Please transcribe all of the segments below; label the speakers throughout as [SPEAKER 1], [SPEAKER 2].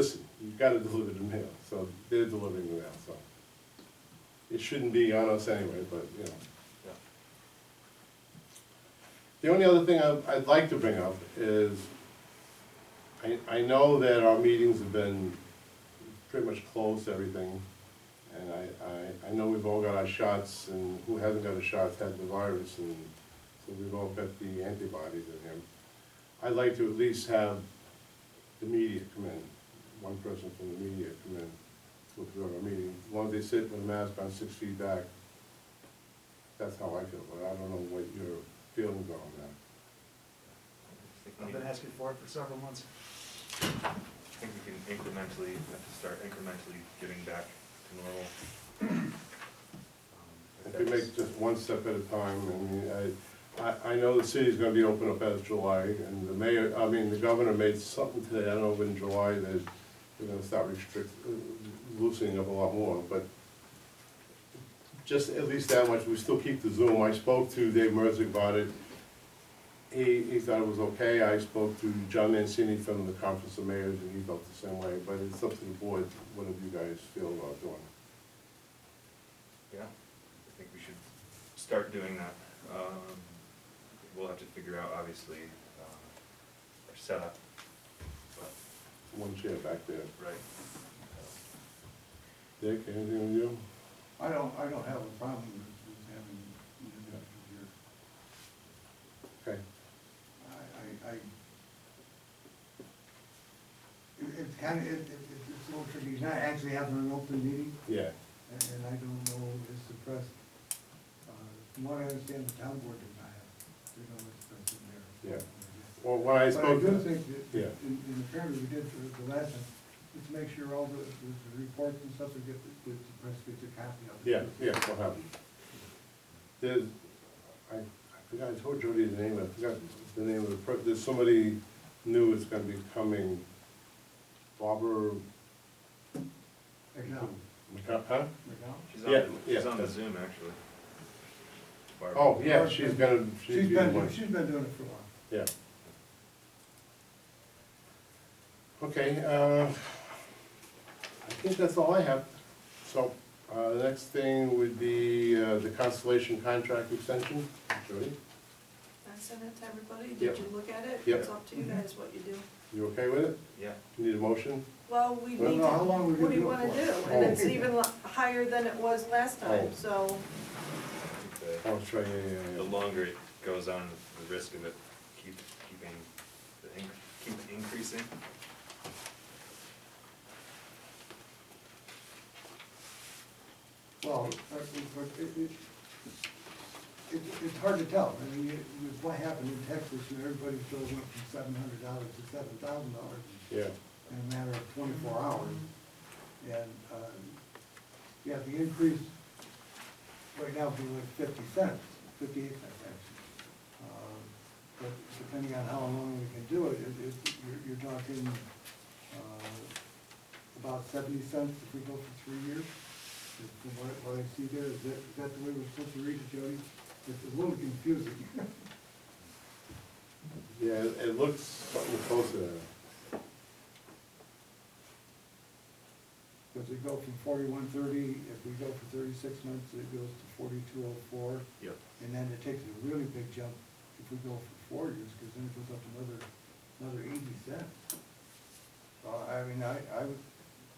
[SPEAKER 1] Listen, you've got to deliver the mail, so they're delivering the mail, so. It shouldn't be on us anyway, but, you know.
[SPEAKER 2] Yeah.
[SPEAKER 1] The only other thing I- I'd like to bring up is, I, I know that our meetings have been pretty much closed, to everything. And I, I, I know we've all got our shots, and who hasn't got a shot had the virus, and so we've all got the antibodies in him. I'd like to at least have the media come in, one person from the media come in to observe our meeting. As long as they sit with a mask on six feet back, that's how I feel, but I don't know what your feelings are on that.
[SPEAKER 2] I
[SPEAKER 3] I've been asking for it for several months.
[SPEAKER 2] think we can incrementally, have to start incrementally getting back to normal. Um,
[SPEAKER 1] If we make just one step at a time, I mean, I, I, I know the city's gonna be open up as July, and the mayor, I mean, the governor made something today, I don't know, in July, that they're gonna start restrict, loosening up a lot more, but just at least that much, we still keep the Zoom, I spoke to Dave Merzick about it. He, he thought it was okay, I spoke to John Mancini from the Conference of Mayors, and he felt the same way, but it's up to the board, what do you guys feel about doing?
[SPEAKER 2] Yeah, I think we should start doing that. Um, We'll have to figure out, obviously, uh, our setup, but,
[SPEAKER 1] One chair back there.
[SPEAKER 2] right.
[SPEAKER 1] Dick, anything with you?
[SPEAKER 4] I don't, I don't have a problem with with having an individual here.
[SPEAKER 1] Okay,
[SPEAKER 4] I, I, I, it- it's kind of, it, it, it's it's a little tricky, he's not actually having an open meeting,
[SPEAKER 1] yeah,
[SPEAKER 4] and, and I don't know if it's suppressed. Uh, From what I understand, the town board does not have, they don't express it there.
[SPEAKER 1] Yeah. well, when I
[SPEAKER 4] But I
[SPEAKER 1] spoke
[SPEAKER 4] do
[SPEAKER 1] to,
[SPEAKER 4] think that,
[SPEAKER 1] Yeah.
[SPEAKER 4] in, in the fairness we did for the last time, let's make sure all the, the the reports and stuff that get, that the press gets a copy of. it.
[SPEAKER 1] yeah, yeah, what happened? There's, I, I forgot, I told Jody the name, I forgot the name of the, per- there's somebody new is gonna be coming, Barbara,
[SPEAKER 4] McDonald,
[SPEAKER 1] McCo- huh?
[SPEAKER 4] McDonald?
[SPEAKER 2] She's on,
[SPEAKER 1] Yeah,
[SPEAKER 2] she's
[SPEAKER 1] yeah.
[SPEAKER 2] on the Zoom, actually. Barbara.
[SPEAKER 1] Oh, yeah, she's gonna, she's
[SPEAKER 4] She's
[SPEAKER 1] the
[SPEAKER 4] been,
[SPEAKER 1] one,
[SPEAKER 4] she's been doing it for a while.
[SPEAKER 1] yeah. Okay, uh, I think that's all I have. So, uh, the next thing would be, uh, the Constellation contract extension, Jody?
[SPEAKER 5] I sent it to everybody,
[SPEAKER 1] Yep.
[SPEAKER 5] did you look at it?
[SPEAKER 1] Yep.
[SPEAKER 5] It's up to you guys what you do.
[SPEAKER 1] You okay with it?
[SPEAKER 2] Yeah,
[SPEAKER 1] You Need a motion?
[SPEAKER 5] Well, we need
[SPEAKER 1] Well,
[SPEAKER 5] to,
[SPEAKER 4] no, how long we
[SPEAKER 5] what
[SPEAKER 4] gonna
[SPEAKER 5] do you
[SPEAKER 4] do it
[SPEAKER 5] wanna
[SPEAKER 4] for?
[SPEAKER 5] do? And
[SPEAKER 1] Oh.
[SPEAKER 5] it's even li- higher than it was last
[SPEAKER 1] Oh.
[SPEAKER 5] time, so,
[SPEAKER 2] I think
[SPEAKER 1] Oh, sorry, yeah,
[SPEAKER 2] the,
[SPEAKER 1] yeah,
[SPEAKER 2] the
[SPEAKER 1] yeah.
[SPEAKER 2] longer it goes on, the risk of it keep, keeping, the inc- keep increasing.
[SPEAKER 4] Well, uh, it, it, it- it, it's hard to tell, I mean, it was what happened in Texas, you know, everybody still went from seven hundred dollars to seven thousand dollars
[SPEAKER 1] Yeah,
[SPEAKER 4] in a matter of twenty-four hours. And, uh, yeah, the increase right now would be like fifty cents, fifty-eight cents actually. Um, But depending on how long we can do it, it, it, you're, you're talking, uh, about seventy cents if we go for three years. Is From what, what I see there, is that, is that the way we're supposed to read it, Jody? It's a little confusing.
[SPEAKER 1] yeah, it it looks something close to that.
[SPEAKER 4] Because we go from forty-one thirty, if we go for thirty-six months, it goes to forty-two oh four.
[SPEAKER 2] Yep.
[SPEAKER 4] And then it takes a really big jump if we go for four years, because then it goes up another, another eighty cents. So, I mean, I, I would,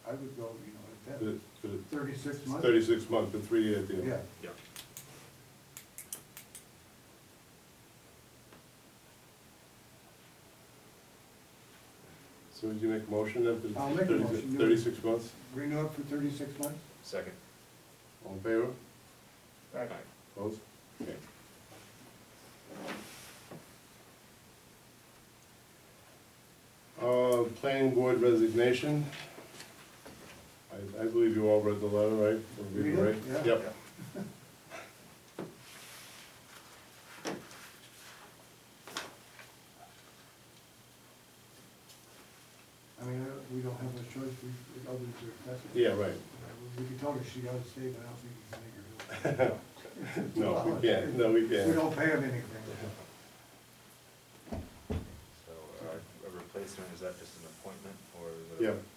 [SPEAKER 4] I would go, you know, at
[SPEAKER 1] The-
[SPEAKER 4] that,
[SPEAKER 1] the
[SPEAKER 4] thirty-six months.
[SPEAKER 1] Thirty-six month, the three-year deal.
[SPEAKER 4] Yeah,
[SPEAKER 2] Yeah.
[SPEAKER 1] So would you make a motion then? for
[SPEAKER 4] I'll make a
[SPEAKER 1] 36
[SPEAKER 4] motion.
[SPEAKER 1] Thirty-six months,
[SPEAKER 4] renew it for thirty-six months?
[SPEAKER 2] Second.
[SPEAKER 1] all in favor?
[SPEAKER 2] Right.
[SPEAKER 1] Opposed? Okay. Uh, planning board resignation. I, I believe you all read the letter, right? Or read it,
[SPEAKER 4] We
[SPEAKER 1] right?
[SPEAKER 4] did, yeah.
[SPEAKER 1] Yep.
[SPEAKER 4] I mean, I- we don't have a choice, we, the others are accepting.
[SPEAKER 1] Yeah, right.
[SPEAKER 4] We could tell her she ought to stay, but I don't think we can make her. do it.
[SPEAKER 1] No, we can't, no, we can't.
[SPEAKER 4] We don't pay them anything.
[SPEAKER 2] So uh, a replacement, is that just an appointment or is it?
[SPEAKER 1] Yeah,